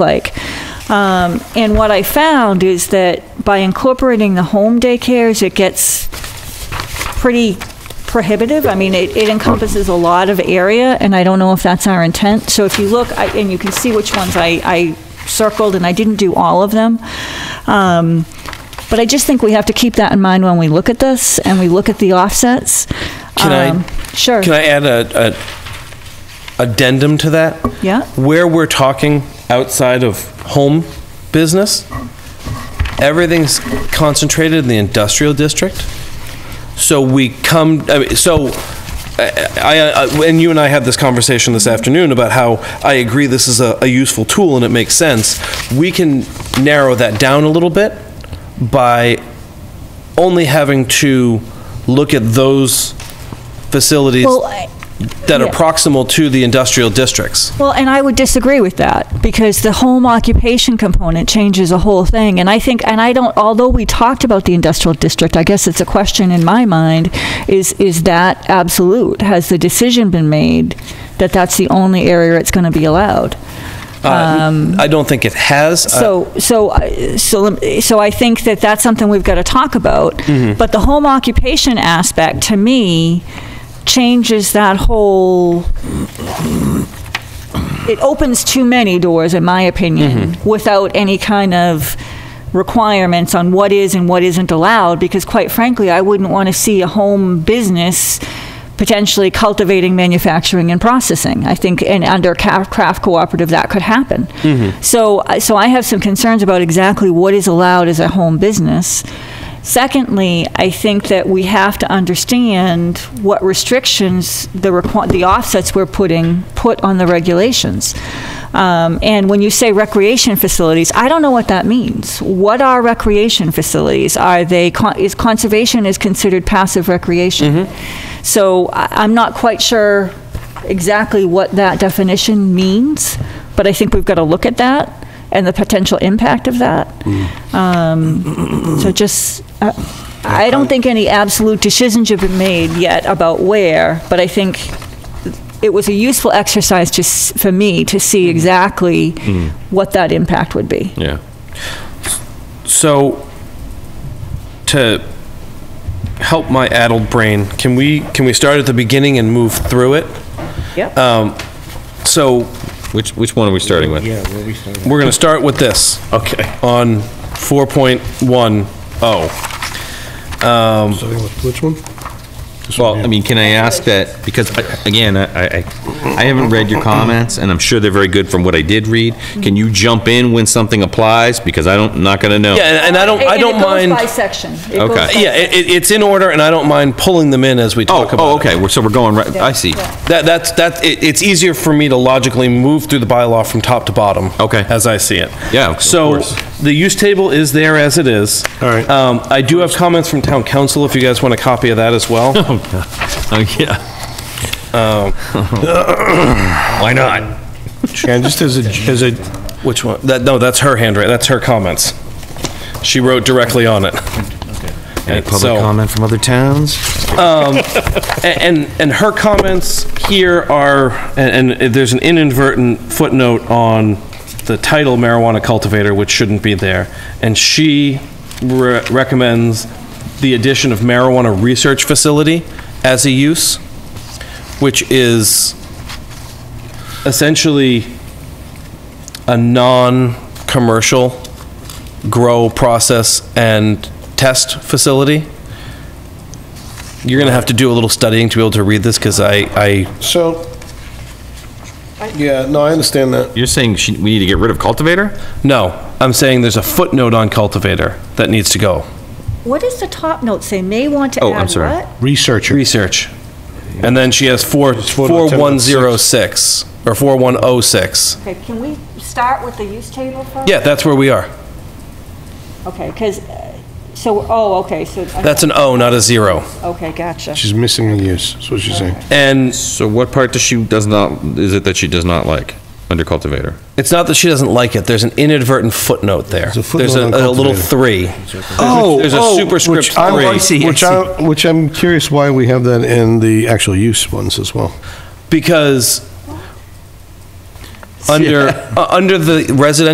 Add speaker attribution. Speaker 1: like. Um, and what I found is that by incorporating the home daycares, it gets pretty prohibitive. I mean, it, it encompasses a lot of area, and I don't know if that's our intent. So if you look, I, and you can see which ones I, I circled, and I didn't do all of them. Um, but I just think we have to keep that in mind when we look at this and we look at the offsets. Um,
Speaker 2: Can I-
Speaker 1: Sure.
Speaker 2: Can I add a, a addendum to that?
Speaker 1: Yeah.
Speaker 2: Where we're talking outside of home business, everything's concentrated in the industrial district. So we come, I mean, so I, I, and you and I had this conversation this afternoon about how I agree this is a, a useful tool and it makes sense. We can narrow that down a little bit by only having to look at those facilities
Speaker 1: Well, I-
Speaker 2: that are
Speaker 1: yeah.
Speaker 2: proximal to the industrial districts.
Speaker 1: Well, and I would disagree with that because the home occupation component changes a whole thing. And I think, and I don't, although we talked about the industrial district, I guess it's a question in my mind is, is that absolute? Has the decision been made that that's the only area it's going to be allowed?
Speaker 2: Uh, I don't think it has. Uh,
Speaker 1: Um, So, so, I- so, lem- so I think that that's something we've got to talk about. But the home occupation aspect, to me, changes that whole. It opens too many doors, in my opinion, without any kind of requirements on what is and what isn't allowed. Because, quite frankly, I wouldn't want to see a home business potentially cultivating, manufacturing, and processing. I think, and under ca- craft cooperative, that could happen. So, I- so I have some concerns about exactly what is allowed as a home business. Secondly, I think that we have to understand what restrictions the requ- the offsets we're putting put on the regulations. Um, and when you say recreation facilities, I don't know what that means. What are recreation facilities? Are they con- is conservation is considered passive recreation? So I, I'm not quite sure exactly what that definition means, but I think we've got to look at that and the potential impact of that. Um,
Speaker 3: Hmm.
Speaker 1: So just, uh, I don't think any absolute decisions have been made yet about where, but I think it was a useful exercise to, s- for me to see
Speaker 3: Hmm.
Speaker 1: exactly what that impact would be.
Speaker 2: yeah. So to help my addled brain, can we can we start at the beginning and move through it?
Speaker 1: Yep.
Speaker 3: Uh,
Speaker 2: So
Speaker 3: Which, which one are we starting with?
Speaker 2: we're going to start with this. Okay. On 4.10.
Speaker 4: Which one?
Speaker 3: Well, I mean, can I ask that, because, I- again, I, I I haven't read your comments, and I'm sure they're very good from what I did read. Can you jump in when something applies, because I don't, not gonna know?
Speaker 2: Yeah, and, and I don't I don't mind
Speaker 1: it goes by section. It goes
Speaker 3: Okay.
Speaker 1: by-
Speaker 2: Yeah, it, it- it's in order and I don't mind pulling them in as we
Speaker 3: Oh,
Speaker 2: talk about
Speaker 3: oh,
Speaker 2: it.
Speaker 3: okay, we're- so we're going right, I see.
Speaker 2: That, that's, that, it, it's easier for me to logically move through the bylaw from top to bottom.
Speaker 3: Okay.
Speaker 2: As I see it.
Speaker 3: Yeah, of
Speaker 2: So,
Speaker 3: course.
Speaker 2: the use table is there as it is.
Speaker 4: All right.
Speaker 2: Um, I do have comments from town council if you guys want a copy of that as well.
Speaker 3: Oh, yeah. Why not?
Speaker 4: And just as a, as a,
Speaker 2: Which one? That, no, that's her handwriting, that's her comments. She wrote directly on it.
Speaker 3: Any
Speaker 2: And so-
Speaker 3: public comment from other towns?
Speaker 2: A- And, and her comments here are, and, and there's an inadvertent footnote on the title marijuana cultivator, which shouldn't be there. And she re- recommends the addition of marijuana research facility as a use, which is essentially a non-commercial grow, process, and test facility. You're gonna have to do a little studying to be able to read this, because I, I,
Speaker 4: so, yeah, no, I understand that.
Speaker 3: You're saying she- we need to get rid of cultivator?
Speaker 2: no, I'm saying there's a footnote on cultivator that needs to go.
Speaker 1: What does the top note say? May want to
Speaker 3: Oh,
Speaker 1: add
Speaker 3: I'm sorry.
Speaker 1: what?
Speaker 4: Researcher.
Speaker 2: Research. And then she has four,
Speaker 4: footnote
Speaker 2: 4106, or 4106.
Speaker 1: Okay, can we start with the use table first?
Speaker 2: Yeah, that's where we are.
Speaker 1: Okay, because, so, oh, okay, so,
Speaker 2: That's an O, not a zero.
Speaker 1: okay, gotcha.
Speaker 4: She's missing a use, that's what she's saying.
Speaker 2: And
Speaker 3: So what part does she, does not, is it that she does not like, under cultivator?
Speaker 2: it's not that she doesn't like it, there's an inadvertent footnote there.
Speaker 4: There's a
Speaker 2: There's
Speaker 4: footnote
Speaker 2: a,
Speaker 4: on
Speaker 2: a little
Speaker 4: cultivator.
Speaker 2: three.
Speaker 3: Oh,
Speaker 2: There's a
Speaker 3: oh,
Speaker 2: superscript
Speaker 4: Which I'm-
Speaker 2: three.
Speaker 4: Which I, which I'm curious why we have that in the actual use ones as well.
Speaker 2: Because under, uh, under the residential